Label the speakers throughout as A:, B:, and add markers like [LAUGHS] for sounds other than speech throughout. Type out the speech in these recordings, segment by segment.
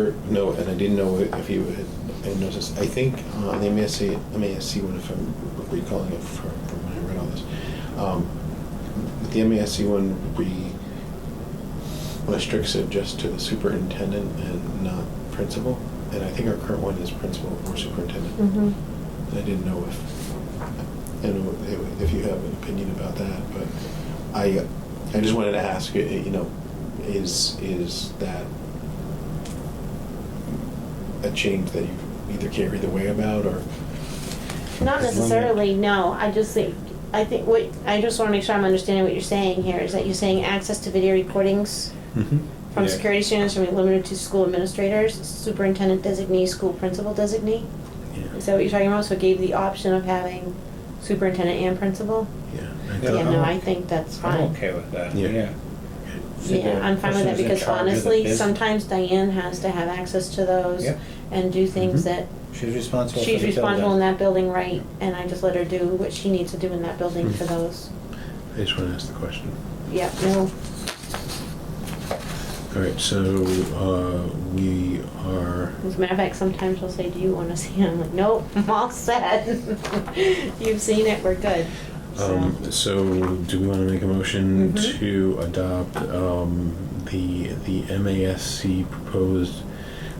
A: or no, and I didn't know if you had had noticed. I think uh, the MASC, MASC one, if I'm recalling it from, from when I read all this, um, the MASC one re- restricts it just to the superintendent and not principal. And I think our current one is principal or superintendent.
B: Mhm.
A: I didn't know if, I don't know if you have an opinion about that, but I, I just wanted to ask, uh, you know, is, is that a change that you either care either way about, or?
B: Not
A: Just wondering.
B: necessarily, no. I just think, I think what, I just want to make sure I'm understanding what you're saying here, is that you're saying access to video recordings from
A: Yeah.
B: security standards should be limited to school administrators, superintendent designee, school principal designee? Is that what you're talking about? So it gave the option of having superintendent and principal?
A: Yeah.
C: Yeah.
B: Yeah, no, I think that's
C: I'm
B: fine.
C: okay with that,
A: Yeah.
C: yeah.
B: Yeah, I'm fine with that
C: Person's in
B: because
C: charge of the
B: honestly,
C: business.
B: sometimes Diane has to have access to those
C: Yep.
B: and do things
A: Mhm.
B: that
C: She's responsible for the
B: She's responsible in
C: building.
B: that building, right, and I just let her do what she needs to do in that building for those.
A: I just want to ask the question.
B: Yeah, no,
A: All right, so, uh, we are,
B: as a matter of fact, sometimes she'll say, do you wanna see it? I'm like, nope, [LAUGHS] I'm all set. [LAUGHS] You've seen it, we're good. So,
A: um, so do we want to make a motion
B: Mhm.
A: to adopt, um, the, the MASC proposed,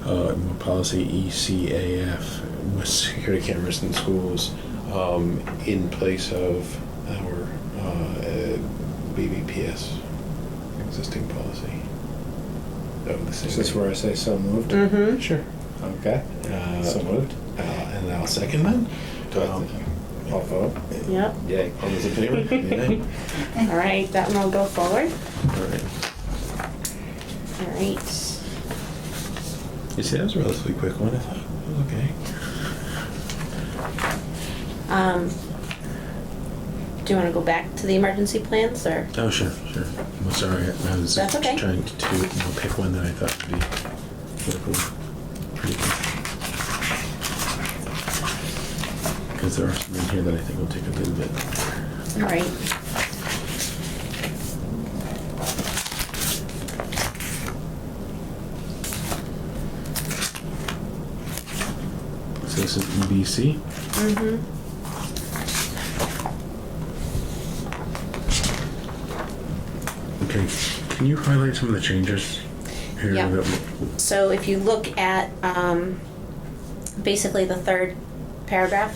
A: uh, policy ECAF with security cameras in schools, um, in place of our, uh, uh, BBPS existing policy of the same.
C: Is this where I say so moved?
B: mm-hmm,
A: Sure.
C: Okay,
A: Uh,
C: so moved.
A: Uh, And I'll second that.
C: Do I-
A: Um,
C: I'll vote.
B: yep, [LAUGHS]
C: Yay.
A: All those in
C: [LAUGHS]
A: favor? Yay.
B: all right, that one will go forward,
A: All right.
B: all right.
A: You see, that was a relatively quick one, I thought. It was okay.
B: Um, do you wanna go back to the emergency plans, or?
A: Oh, sure, sure. I'm sorry, I was
B: That's okay.
A: trying to you know, pick one that I thought would be political. Pretty good. Because there are some in here that I think will take a little bit.
B: All right.
A: So this is E EBC.
B: Mm-hmm.
A: Okay, can you highlight some of the changes here?
B: Yeah.
A: that-
B: So if you look at um, basically the third paragraph,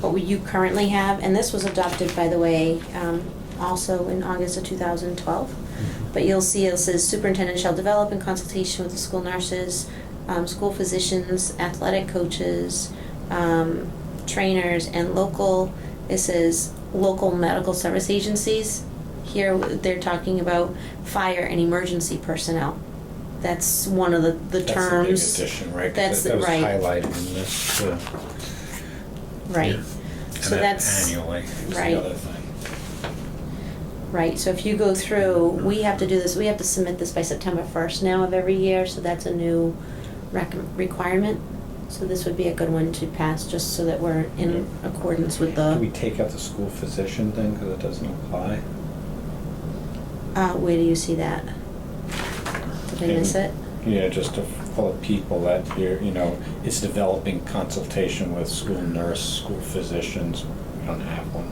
B: what we- you currently have, and this was adopted, by the way, um, also in August of 2012, but you'll see it says superintendent shall develop in consultation with the school nurses, um, school physicians, athletic coaches, um, trainers, and local, it says local medical service agencies. Here, they're talking about fire and emergency personnel. That's one of the, the
C: That's
B: terms.
C: big addition, right? 'Cause
B: That's
C: that-
B: right.
C: That was highlighted in this, uh,
B: Right.
A: Yeah.
B: So
C: and that
B: that's,
C: annually is
B: right.
C: the other thing.
B: right, so if you go through, we have to do this, we have to submit this by September first now of every year, so that's a new rec- requirement. So this would be a good one to pass, just so that we're in accordance with
C: Do we
B: the,
C: take out the school physician thing because it doesn't apply?
B: uh, where do you see that? Did I miss it?
C: Yeah, just to call it people that you're, you know, it's developing consultation with school nurse, school physicians. We don't have one.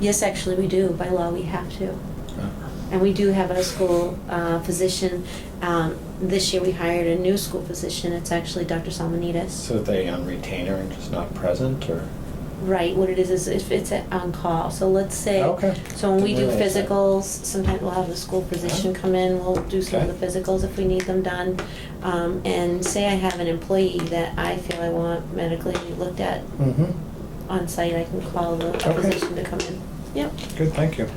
B: Yes, actually, we do, by law, we have to. And we do have a school uh, physician, um, this year we hired a new school physician, it's actually Dr. Salmonidis.
C: So they on retainer and just not present or?
B: Right, what it is, is if it's at on call, so let's say.
C: Okay.
B: So when we do
C: Didn't realize that.
B: physicals, sometimes we'll have the school physician come in, we'll do some of the physicals if we need them done. Um, and say I have an employee that I feel I want medically looked at
C: Mm-hmm.
B: on site, I can call the
C: Okay.
B: physician to come in. Yep,
C: Good, thank you.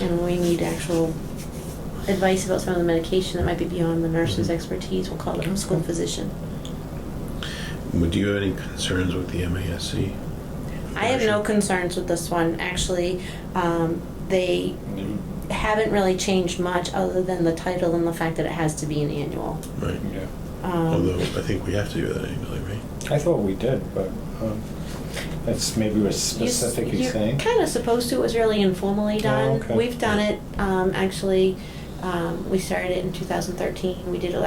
B: and we need actual advice about some of the medication that might be beyond the nurse's
A: Mhm.
B: expertise, we'll call the school
C: Mm-hmm. Okay.
B: physician.
A: Would you have any concerns with the MASC?
B: I have no concerns with this one, actually, um, they haven't really changed much other than the title and the fact that it has to be an annual.
A: Right.
C: Yeah.
A: Although
B: Um,
A: I think we have to do that annually, right?
C: I thought we did, but um, that's maybe was specific
B: you,
C: you
B: are
C: saying.
B: kind of supposed to. It was really informally
C: Oh,
B: done.
C: okay.
B: We've done it um, actually. Um, we started it in 2013. We did it last.